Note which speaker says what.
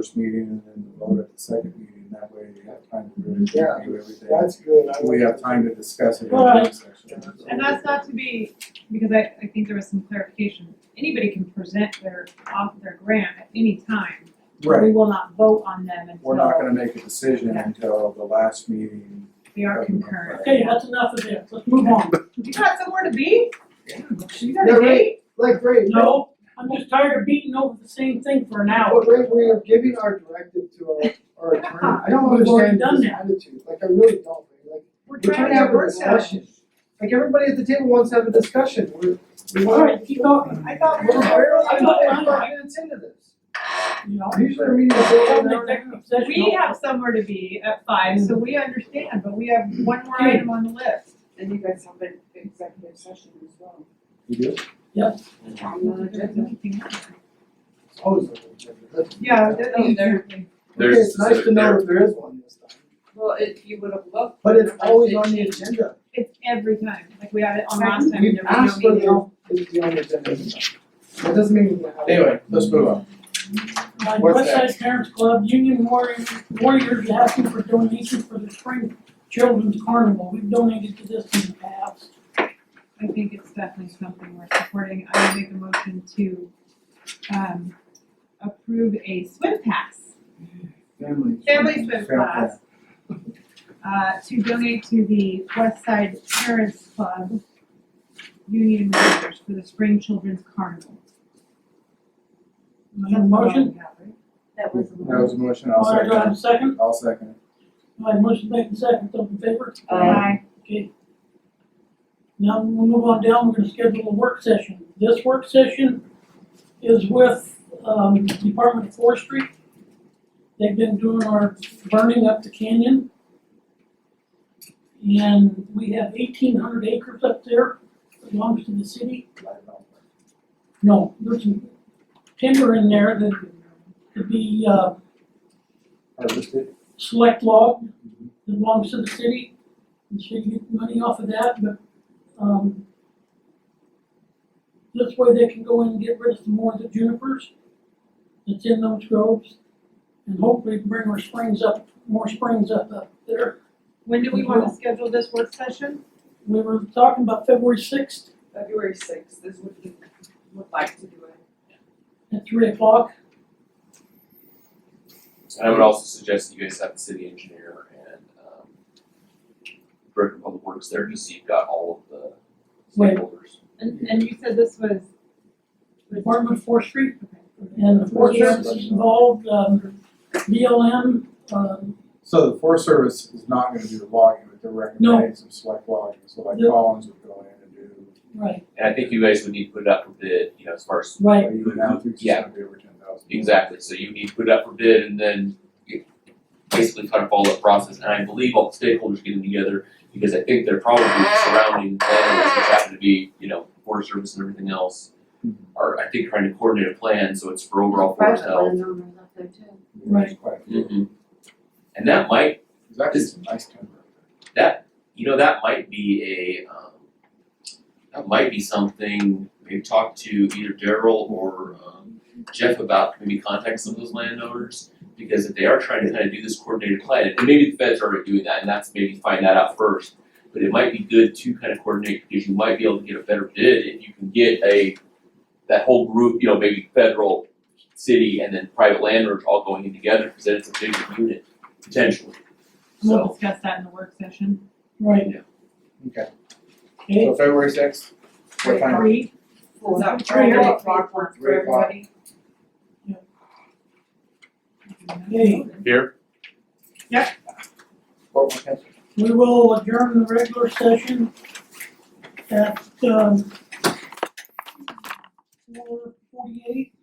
Speaker 1: first meeting and then vote at the second meeting, that way you have time to really
Speaker 2: Yeah.
Speaker 1: review everything.
Speaker 2: That's good. I
Speaker 1: We
Speaker 2: like
Speaker 1: have time to discuss it in the
Speaker 3: Well,
Speaker 1: next section.
Speaker 3: And that's not to be, because I, I think there was some clarification, anybody can present their, off their grant at any time. We
Speaker 1: Right,
Speaker 3: will not vote on them
Speaker 1: we're not
Speaker 3: until
Speaker 1: gonna make a decision
Speaker 3: Yeah.
Speaker 1: until the last meeting.
Speaker 3: they are concurrent.
Speaker 4: Okay, that's enough of it, let's move on.
Speaker 3: You got somewhere to be? You got
Speaker 2: Yeah,
Speaker 3: a
Speaker 2: right.
Speaker 3: date?
Speaker 2: Like Ray, no,
Speaker 4: No, I'm just tired of beating over the same thing for an hour.
Speaker 2: what Ray, we are giving our directive to our, our attorney. I don't
Speaker 4: We've already
Speaker 2: understand
Speaker 4: done
Speaker 2: this attitude, like I really don't, Ray. like.
Speaker 3: We're
Speaker 2: we're
Speaker 3: trying to have a work session.
Speaker 2: discussion. Like everybody at the table wants to have a discussion, we're. we want-
Speaker 4: Alright, keep talking,
Speaker 2: I thought we're barely
Speaker 4: I thought mine-
Speaker 2: about five minutes into this.
Speaker 4: you know.
Speaker 2: Usually our meetings
Speaker 4: We're
Speaker 2: are
Speaker 4: having
Speaker 2: an
Speaker 4: an
Speaker 2: hour and a half.
Speaker 4: executive session.
Speaker 3: We have somewhere to be at five, so we understand, but we have one more item on the list.
Speaker 5: And you guys have an executive session as well.
Speaker 1: You do?
Speaker 5: On
Speaker 2: Uh,
Speaker 5: the agenda.
Speaker 2: It's always on the agenda. That's-
Speaker 3: Yeah, that-
Speaker 2: Okay,
Speaker 3: exactly.
Speaker 2: It's nice to know if there is one this time,
Speaker 5: Well, if you would have looked.
Speaker 2: but it's
Speaker 5: like
Speaker 2: always on the
Speaker 5: fifteen.
Speaker 2: agenda.
Speaker 3: It's every time, like we had it on last time
Speaker 2: We've
Speaker 3: and there was
Speaker 2: asked
Speaker 3: no
Speaker 2: for
Speaker 3: meeting.
Speaker 2: the, it's the on the agenda this time. That doesn't mean we have.
Speaker 1: Anyway, let's move on.
Speaker 4: My
Speaker 1: What's
Speaker 4: Westside Parents Club, Union Warrior, Warriors asking for donations for the spring children's carnival, we've donated to this in the past.
Speaker 3: I think it's definitely something we're supporting. I would make a motion to um approve a swim pass,
Speaker 1: Family.
Speaker 3: family swim
Speaker 1: Fair
Speaker 3: class. Uh to donate to the West Side Parents Club Union Warriors for the Spring Children's Carnival.
Speaker 4: Is that a motion?
Speaker 5: That
Speaker 1: plan.
Speaker 5: was.
Speaker 1: That was a motion, I'll
Speaker 4: Alright, do I
Speaker 1: second
Speaker 4: have a second?
Speaker 1: it, I'll second it.
Speaker 4: My motion made in second, those in favor?
Speaker 5: Uh,
Speaker 3: Aye.
Speaker 4: Okay. Now, we'll move on down, we're gonna schedule a work session. This work session is with, um, Department of Forestry. They've been doing our burning up the canyon. And we have eighteen hundred acres up there, that belongs to the city. No, there's some timber in there that could be, uh,
Speaker 1: Harvested.
Speaker 4: select log that belongs to the city. The city gets money off of that, but, um, this way they can go in and get rid of some more of the junipers that's in those groves. And hopefully bring our springs up, more springs up up there.
Speaker 3: When do we wanna schedule this work session?
Speaker 4: We were talking about February sixth
Speaker 5: February sixth is what you would like to do it.
Speaker 4: at three o'clock.
Speaker 6: And I would also suggest that you guys have the city engineer and, um, Director of Public Works there, just so you've got all of the
Speaker 4: Right.
Speaker 6: stakeholders.
Speaker 3: And and you said this was
Speaker 4: Department of Forestry and the Forest Service is involved, um, BLM, um,
Speaker 1: So the Forest Service is not gonna do the logging, but they're recommending some select logging, so like
Speaker 4: No.
Speaker 1: Collins would go in and do.
Speaker 4: right,
Speaker 6: And I think you guys would need to put it up for bid, you know, as far as.
Speaker 4: right.
Speaker 1: But Even now, it's
Speaker 6: Yeah.
Speaker 1: gonna be over ten thousand.
Speaker 6: Exactly, so you need to put it up for bid and then you basically kind of follow that process, and I believe all the stakeholders getting together, because I think they're probably surrounding landowners, which happen to be, you know, Forest Service and everything else,
Speaker 1: Mhm.
Speaker 6: are, I think, trying to coordinate a plan, so it's for overall
Speaker 5: Private
Speaker 6: forest health.
Speaker 5: landowners up there too.
Speaker 1: There's quite a few.
Speaker 6: Mhm. And that might
Speaker 1: There's actually some nice timber.
Speaker 6: that you know that might be a um, that might be something maybe talk to either Daryl or um, Jeff about maybe contact some of those landowners because if they are trying to kind of do this coordinated plan and maybe the feds are already doing that and that's maybe find that out first but it might be good to kind of coordinate because you might be able to get a better bid if you can get a that whole group you know maybe federal city and then private landowners all going in together because then it's a bigger unit potentially
Speaker 3: we'll
Speaker 6: so
Speaker 3: discuss that in the work session.
Speaker 4: Right,
Speaker 1: Okay,
Speaker 4: okay,
Speaker 1: so February sixth, what time?
Speaker 3: Three,
Speaker 5: Is that
Speaker 3: Three
Speaker 5: Friday,
Speaker 3: o'clock.
Speaker 5: three o'clock for
Speaker 1: Three o'clock.
Speaker 5: everybody?
Speaker 4: okay.
Speaker 6: here
Speaker 1: What, what time?
Speaker 4: We will adjourn the regular session at, um, four forty-eight.